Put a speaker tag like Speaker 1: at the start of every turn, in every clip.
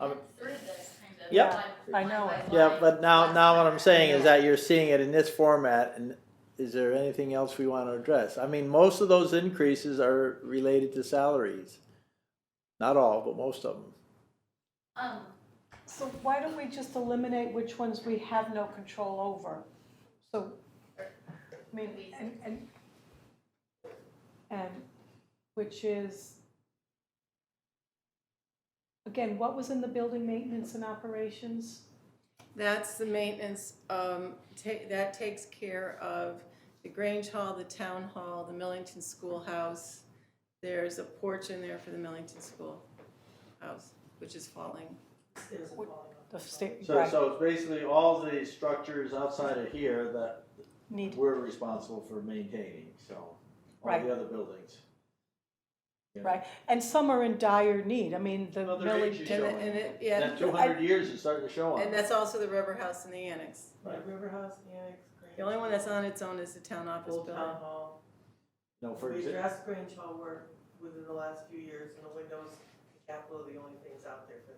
Speaker 1: I'm-
Speaker 2: through this kind of.
Speaker 1: Yep.
Speaker 2: line-
Speaker 3: I know
Speaker 2: line
Speaker 3: it.
Speaker 2: by
Speaker 1: Yeah,
Speaker 2: line.
Speaker 1: but now,
Speaker 2: That's
Speaker 1: now what I'm
Speaker 2: better.
Speaker 1: saying is that you're seeing it in this format, and is there anything else we wanna address? I mean, most of those increases are related to salaries. Not all, but most of them.
Speaker 2: Um,
Speaker 3: So why don't we just eliminate which ones we have no control over? So, I mean, and, and, and, which is, again, what was in the building maintenance and operations?
Speaker 4: That's the maintenance, um, ta- that takes care of the Grange Hall, the Town Hall, the Millington Schoolhouse. There's a porch in there for the Millington Schoolhouse, which is falling.
Speaker 3: The state,
Speaker 1: So,
Speaker 3: right,
Speaker 1: so it's basically all the structures outside of here that
Speaker 3: need,
Speaker 1: we're responsible for maintaining, so, all
Speaker 3: Right.
Speaker 1: the other buildings. Yeah.
Speaker 3: right, and some are in dire need, I mean, the
Speaker 1: Well, there is
Speaker 3: millage,
Speaker 1: usually
Speaker 4: And it, and it, yeah,
Speaker 1: That two hundred years is starting to show on.
Speaker 4: and that's also the rubber house and the annex.
Speaker 1: Right.
Speaker 5: River House, Annex, Grange.
Speaker 4: The only one that's on its own is the town office
Speaker 5: Old Town
Speaker 4: building.
Speaker 5: Hall.
Speaker 1: No, for
Speaker 5: We
Speaker 1: example,
Speaker 5: addressed Grange Hall work within the last few years, and the windows, the capital are the only things out there for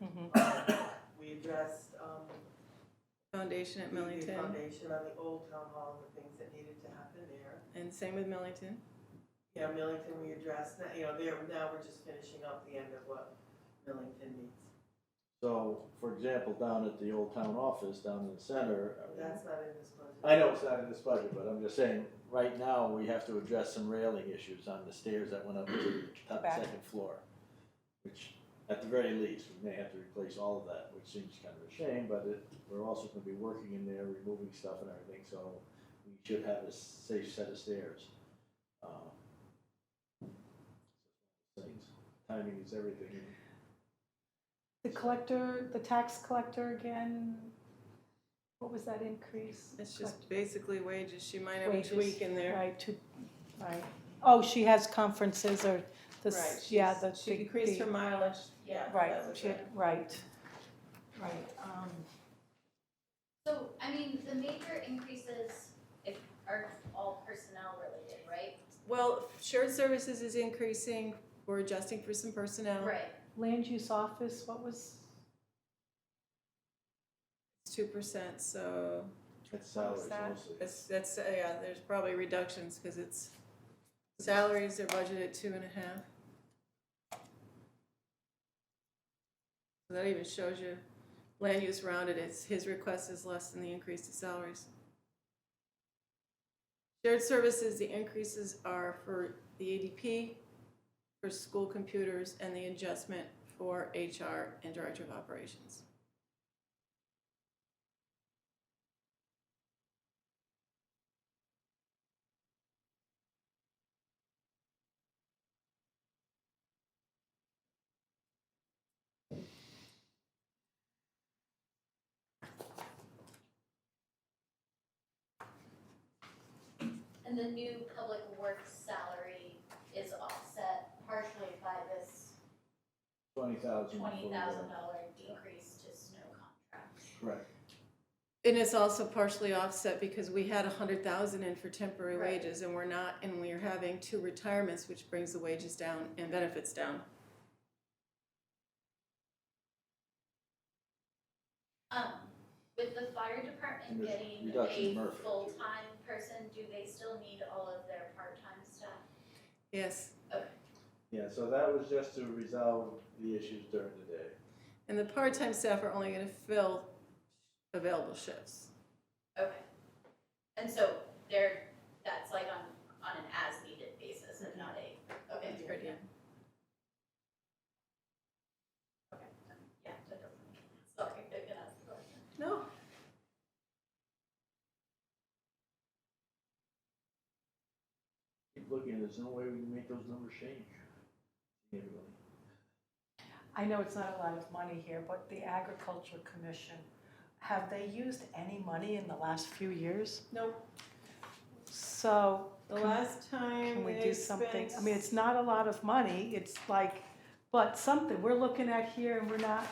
Speaker 4: Mm-hmm.
Speaker 3: Mhm.
Speaker 5: that. We addressed, um,
Speaker 4: Foundation at
Speaker 5: the
Speaker 4: Millington,
Speaker 5: foundation on the Old Town Hall, and the things that needed to happen there.
Speaker 4: and same with Millington.
Speaker 5: Yeah, Millington, we addressed, that, you know, there, now we're just finishing up the end of what Millington needs.
Speaker 1: so, for example, down at the old town office, down in the center. I mean,
Speaker 5: That's not in this budget.
Speaker 1: I know it's not in this budget, but I'm just saying, right now, we have to address some railing issues on the stairs that went up to the top
Speaker 3: Back.
Speaker 1: second floor. Which, at the very least, we may have to replace all of that, which seems kind of a shame, but it, we're also gonna be working in there, removing stuff and everything, so we should have a safe set of stairs. Um, Things, timing is everything.
Speaker 3: the collector, the tax collector again, what was that increase?
Speaker 4: It's
Speaker 3: Collect-
Speaker 4: just basically wages. She might have a
Speaker 3: Wages,
Speaker 4: tweak in there.
Speaker 3: Right, two, right. Oh, she has conferences or
Speaker 4: Right,
Speaker 3: this, yeah,
Speaker 4: she's-
Speaker 3: the.
Speaker 4: She
Speaker 3: big-
Speaker 4: decreased
Speaker 3: the-
Speaker 4: her mileage.
Speaker 2: yeah.
Speaker 3: Right,
Speaker 4: that was
Speaker 3: she,
Speaker 4: it.
Speaker 3: right, right, um,
Speaker 2: So, I mean, the major increases if, are all personnel related, right?
Speaker 4: Well, shared services is increasing. We're adjusting for some personnel.
Speaker 2: Right.
Speaker 3: land use office, what was,
Speaker 4: It's two percent, so
Speaker 1: It's salaries
Speaker 4: that?
Speaker 1: mostly.
Speaker 4: it's, that's, uh, yeah, there's probably reductions because it's, salaries are budgeted at two and a half. So That even shows you land use rounded, it's, his request is less than the increase to salaries. Shared services, the increases are for the ADP, for school computers, and the adjustment for HR and Director of Operations.
Speaker 2: And the new public works salary is offset partially by this
Speaker 1: Twenty thousand.
Speaker 2: twenty thousand dollar decrease to snow contracts.
Speaker 1: Correct.
Speaker 4: And it's also partially offset because we had a hundred thousand in for temporary
Speaker 2: Right.
Speaker 4: wages and we're not, and we're having two retirements, which brings the wages down and benefits down.
Speaker 2: Um, with the fire department
Speaker 1: And there's
Speaker 2: getting
Speaker 1: reduction in
Speaker 2: a
Speaker 1: Murphy, too.
Speaker 2: full-time person, do they still need all of their part-time staff?
Speaker 4: Yes,
Speaker 1: Yeah, so that was just to resolve the issues during the day.
Speaker 4: and the part-time staff are only gonna fill available shifts.
Speaker 2: Okay. And so they're, that's like on, on an as-needed basis and not a, okay.
Speaker 4: That's a good idea.
Speaker 2: Okay, yeah, that doesn't, sorry, I could ask a question.
Speaker 4: No,
Speaker 1: Keep looking, there's no way we can make those numbers change. Yeah, really.
Speaker 3: I know it's not a lot of money here, but the agriculture commission, have they used any money in the last few years?
Speaker 4: no,
Speaker 3: So,
Speaker 4: the last time
Speaker 3: can we
Speaker 4: they
Speaker 3: do something,
Speaker 4: spent.
Speaker 3: I mean, it's not a lot of money, it's like, but something, we're looking at here and we're not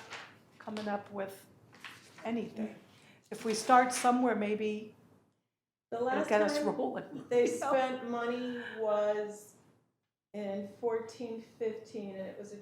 Speaker 3: coming up with anything. If we start somewhere, maybe
Speaker 4: The
Speaker 3: it'll
Speaker 4: last
Speaker 3: get us
Speaker 4: time
Speaker 3: rolling.
Speaker 4: they
Speaker 3: you know?
Speaker 4: spent money was in fourteen, fifteen, and it was a